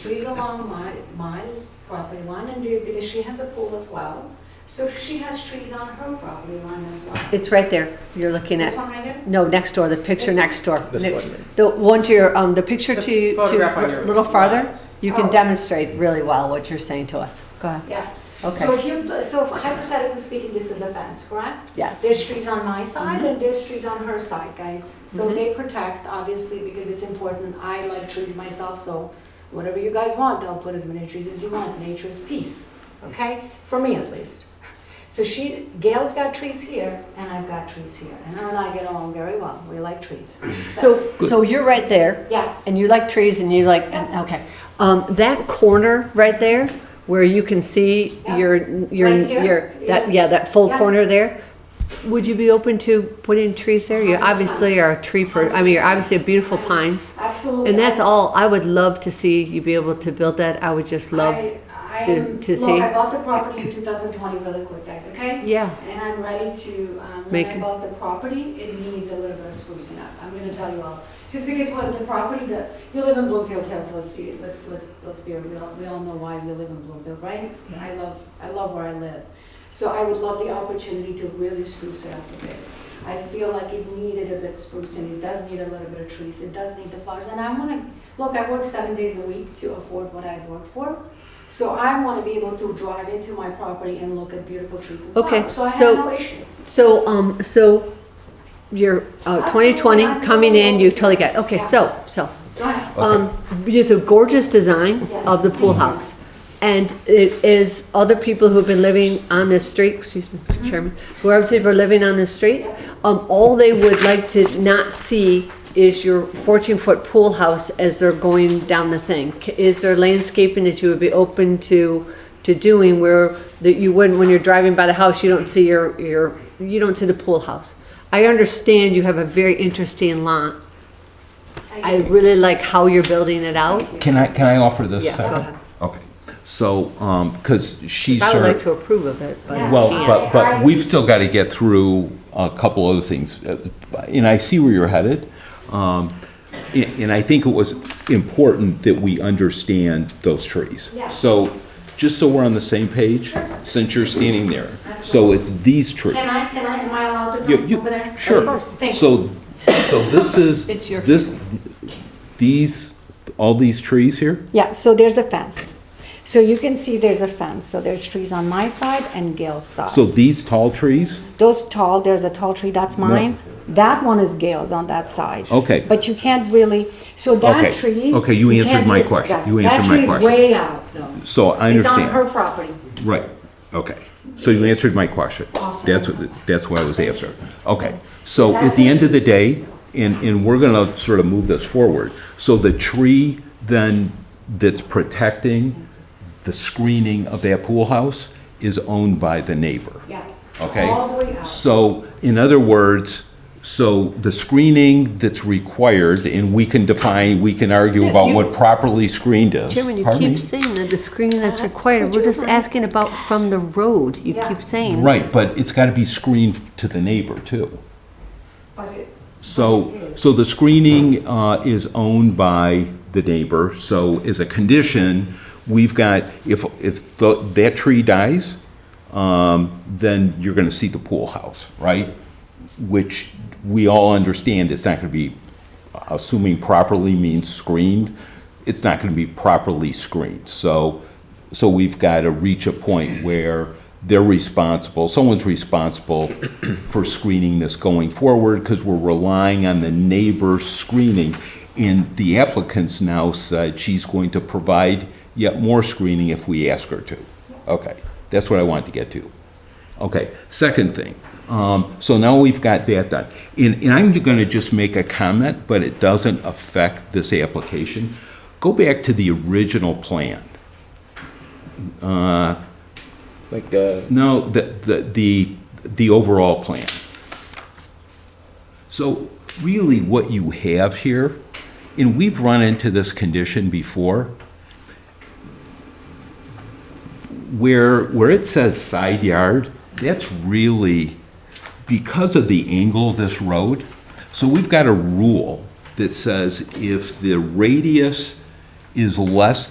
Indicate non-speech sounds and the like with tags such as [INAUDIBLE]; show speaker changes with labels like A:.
A: trees along my, my property line and do, because she has a pool as well. So she has trees on her property line as well.
B: It's right there, you're looking
A: This
B: at,
A: one right here?
B: no, next door, the picture
A: This-
B: next door.
C: This
B: The-
C: one.
B: The one to your, um, the picture
C: The
B: to, to,
C: photograph on your
B: a little farther,
C: right.
B: you can
A: Oh.
B: demonstrate really well what you're saying to us. Go ahead.
A: Yeah. So
B: Okay,
A: if you, so hypothetically speaking, this is a fence, correct?
B: yes.
A: There's trees on my
B: Mm-hmm.
A: side and there's trees on her side, guys. So
B: Mhm.
A: they protect, obviously, because it's important. I like trees myself, so whatever you guys want, I'll put as many trees as you want. Nature's peace, okay? For me at least. So she, Gail's got trees here and I've got trees here. And her and I get along very well. We like trees.
B: So, so you're right there,
A: Yes.
B: and you like trees, and you like,
A: Yeah.
B: okay. Um, that corner right there, where you can see
A: Yeah.
B: your, your,
A: Right here?
B: your, that,
A: Yeah.
B: yeah, that full
A: Yes.
B: corner there, would you be open to putting trees there? You
A: 100%.
B: obviously are a tree per, I mean, you're obviously a beautiful pines.
A: Absolutely.
B: And that's all, I would love to see you be able to build that, I would just love,
A: I- I
B: to-
A: am-
B: to
A: Look,
B: see.
A: I bought the property in 2020 really quick, guys, okay?
B: yeah.
A: And I'm ready to, um, when
B: Make
A: I
B: it-
A: bought the property, it needs a little bit of sprucing up, I'm gonna tell you all. Just because what the property, the, you live in Bloomfield Hills, let's, see- let's, let's, let's be real, we all know why we live in Bloomfield, right? I love, I love where I live. So I would love the opportunity to really spruce it up a bit. I feel like it needed a bit sprucing, it does need a little bit of trees, it does need the flowers, and I wanna, look, I work seven days a week to afford what I work for. So I wanna be able to drive into my property and look at beautiful trees and
B: Okay,
A: flowers, so I
B: so-
A: have no issue.
B: So, um, so you're, uh,
A: Absolutely,
B: 2020
A: I'm
B: coming in, you
A: totally
B: totally get, okay,
A: Yeah.
B: so, so.
A: Go ahead.
B: Um, it's a gorgeous design of the pool house. And it is other people who've been living on this street, excuse me, Mr. Chairman, whoever people are living on this street, um, all they would like to not see is your fourteen-foot pool house as they're going down the thing. C- Is there landscaping that you would be open to, to doing where that you wouldn't, when you're driving by the house, you don't see your, your, you don't see the pool house? I understand you have a very interesting lot, I really like how you're building it out.
D: Can I, can I offer this
B: Yeah, go
D: second?
B: ahead.
D: Okay, so, um, because she's.
B: I would
D: her-
B: like to approve of it, but I
D: Well,
B: can't.
D: but,
A: I-
D: but we've still got to get through a couple other things, Uh, and I see where you're headed. Um, And and I think it was important that we understand those trees.
A: Yeah.
D: So, just so we're on the same page, since you're standing there, so it's these trees.
A: Can I, can I, am I allowed to
D: You-
A: come
D: you-
A: over there?
D: Sure.
A: Please. Thank you.
D: So, so this is,
B: It's your-
D: this, these, all these trees here?
A: Yeah, so there's the fence. So you can see there's a fence, so there's trees on my side and Gail's side.
D: So these tall trees?
A: Those tall, there's a tall tree, that's mine. That one is Gail's on that side.
D: Okay.
A: But you can't really, so that
D: Okay.
A: tree.
D: Okay, you answered
A: can't
D: my
A: really-
D: question.
A: that-
D: You answered my
A: That
D: question.
A: tree is way out though.
D: So I
A: It's on
D: understand.
A: her property.
D: Right, okay. So you answered my question.
A: Awesome.
D: That's what, that's what I was after. Okay, so at the end of the day, and, and we're gonna sort of move this forward, so the tree then that's protecting the screening of that pool house is owned by the neighbor?
A: Yeah.
D: Okay?
A: All the way out.
D: So, in other words, so the screening that's required, and we can define, we can argue about
B: you-
D: what properly screened is.
B: Chairman, you
D: Pardon
B: keep
D: me?
B: saying that the screening that's required, we're just asking about from the road, you
A: Yeah.
B: keep saying.
D: Right, but it's gotta be screened to the neighbor too.
A: But it-
D: So, so the screening uh, is owned by the neighbor, so as a condition, we've got, if, if tho- that tree dies, um, then you're gonna see the pool house, right? Which we all understand it's not gonna be, assuming properly means screened, it's not gonna be properly screened. So, so we've gotta reach a point where they're responsible, someone's responsible [CLEARS THROAT] for screening this going forward, because we're relying on the neighbor's screening. And the applicant's now said she's going to provide yet more screening if we ask her to. Okay, that's what I wanted to get to. Okay, second thing, um, so now we've got that done. And, and I'm gonna just make a comment, but it doesn't affect this application. Go back to the original plan. Uh,
C: Like the
D: No, the, the, the, the overall plan. So really what you have here, and we've run into this condition before, where, where it says side yard, that's really because of the angle of this road. So we've got a rule that says if the radius is less